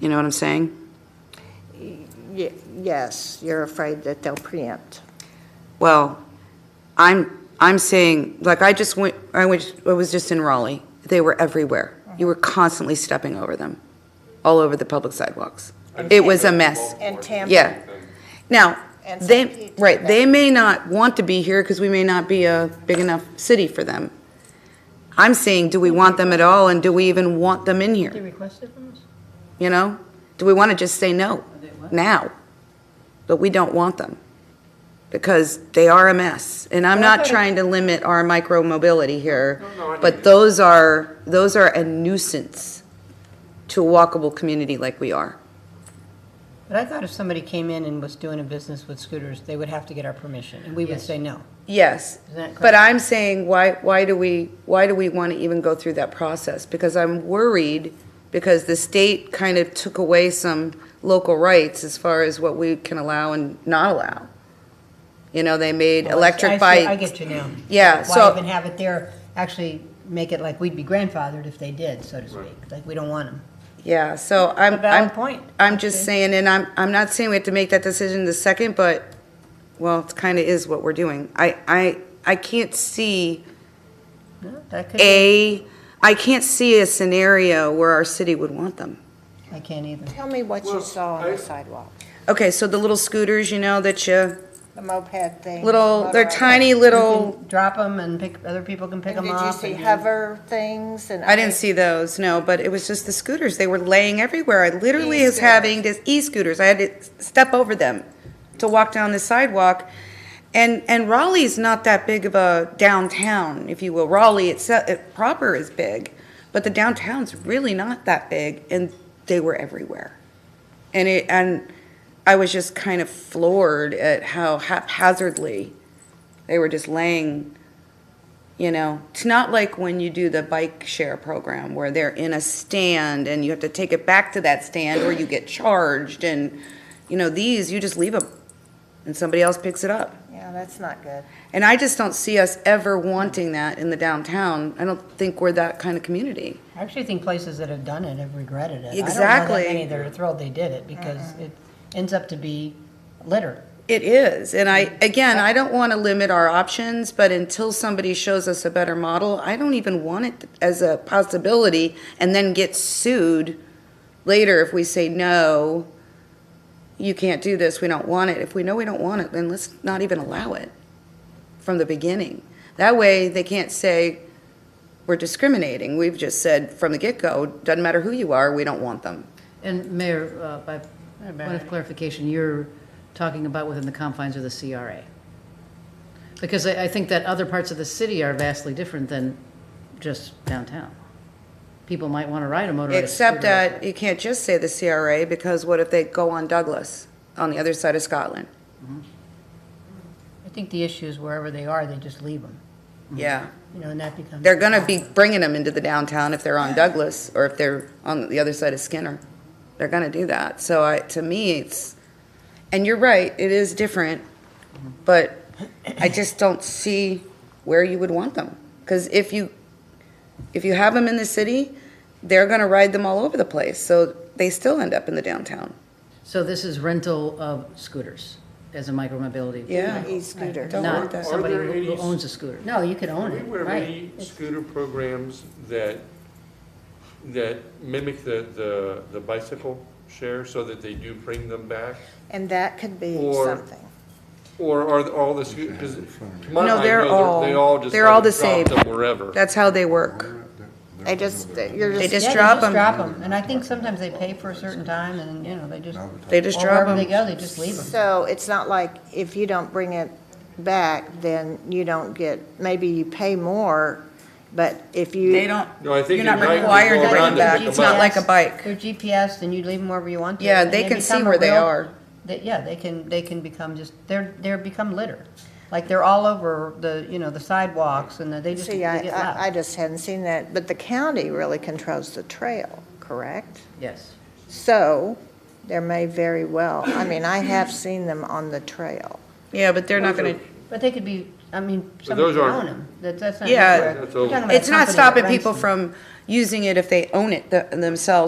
You know what I'm saying? Ye- Yes, you're afraid that they'll preempt. Well, I'm, I'm saying, like, I just went, I went, I was just in Raleigh. They were everywhere. You were constantly stepping over them, all over the public sidewalks. It was a mess. And Tampa. Yeah. Now, And some they, people right, that- they may not want to be here because we may not be a big enough city for them. I'm saying, do we want them at all and do we even want them in here? They requested from us? You know? Do we want to just say no now? But we don't want them because they are a mess. And I'm not trying to limit our micro mobility here, but those are, those are a nuisance to a walkable community like we are. But I thought if somebody came in and was doing a business with scooters, they would have to get our permission, and we would say no. Yes, Isn't that but correct? I'm saying, why, why do we, why do we want to even go through that process? Because I'm worried, because the state kind of took away some local rights as far as what we can allow and not allow. You know, they made Well, I- I electric see- I bikes. get you now. Yeah, Why so- even have it there, actually make it like we'd be grandfathered if they did, so to speak, like we don't want them. Yeah, so I'm, A valid I'm, point. I'm just saying, and I'm, I'm not saying we have to make that decision the second, but, well, it kind of is what we're doing. I, I, I can't see No, That could be, a, I can't see a scenario where our city would want them. I can't either. Tell me what you Well, saw on I- the sidewalk, Okay, so the little scooters, you know, that you, the moped thing. little, they're motorized. tiny You little, can Drop them and pick, other people can pick And them Did you up. see and- hover things and? I didn't other- see those, no, but it was just the scooters. They were laying everywhere. I literally was E-scooters. having these e-scooters. I had to step over them to walk down the sidewalk. And, and Raleigh's not that big of a downtown, if you will. Raleigh itself, it proper is big, but the downtown's really not that big, and they were everywhere. And it, and I was just kind of floored at how haphazardly they were just laying, you know. It's not like when you do the bike share program where they're in a stand and you have to take it back to that stand or you get charged. And, you know, these, you just leave them and somebody else picks it up. Yeah, that's not good. And I just don't see us ever wanting that in the downtown. I don't think we're that kind of community. I actually think places that have done it have regretted it. I don't know Exactly. that many that are thrilled they did it, because it ends up to be litter. It is, and I, again, I don't want to limit our options, but until somebody shows us a better model, I don't even want it as a possibility and then get sued later if we say, no, you can't do this, we don't want it. If we know we don't want it, then let's not even allow it from the beginning. That way, they can't say, we're discriminating. We've just said from the get-go, doesn't matter who you are, we don't want them. And Mayor, uh, by point of clarification, you're talking about within the confines of the CRA? Because I, I think that other parts of the city are vastly different than just downtown. People might want to ride a motorized scooter. Except that you can't just say the CRA, because what if they go on Douglas, on the other side of Scotland? I think the issue is wherever they are, they just leave them, Yeah, you know, and that becomes. they're gonna be bringing them into the downtown if they're on Douglas, or if they're on the other side of Skinner. They're gonna do that, so I, to me, it's, and you're right, it is different, but I just don't see where you would want them. Because if you, if you have them in the city, they're gonna ride them all over the place, so they still end up in the downtown. So this is rental of scooters as a micromobility? Yeah. E-scooter. Don't want Not that. somebody Are there who who any- owns a scooter? No, you could Are own we it, aware of right. any scooter programs that, that mimic the, the, the bicycle share so that they do bring them back? And that could be Or- something. Or are all the scooters, because to my No, mind, they're no, they're- they all- all just they're all kind the of drop same. them wherever. That's how they work. They just, you're They just. just Yeah, they drop them. Drop them, and I think sometimes they pay for a certain time, and, you know, they just. They just or drop Wherever they them. go, they just leave them. So it's not like if you don't bring it back, then you don't get, maybe you pay more, but if you. They don't, No, I think you're not at night you required go to bring around them and back. pick It's them not up. like a bike. They're GPSed, and you leave them wherever you want to. Yeah, and they can see become a where they real- are. they- Yeah, they can, they can become just, they're, they're become litter. Like, they're all over the, you know, the sidewalks, and they just, they See, I, get I- I loud. just hadn't seen that, but the county really controls the trail, correct? Yes. So there may very well, I mean, I have seen them on the trail. Yeah, but they're not Those are- gonna, But they could be, I mean, somebody those could aren't- own them, that, that's not. Yeah. We're That's talking over. about a it's not company that stopping rents people them. from using it if they own it th- themselves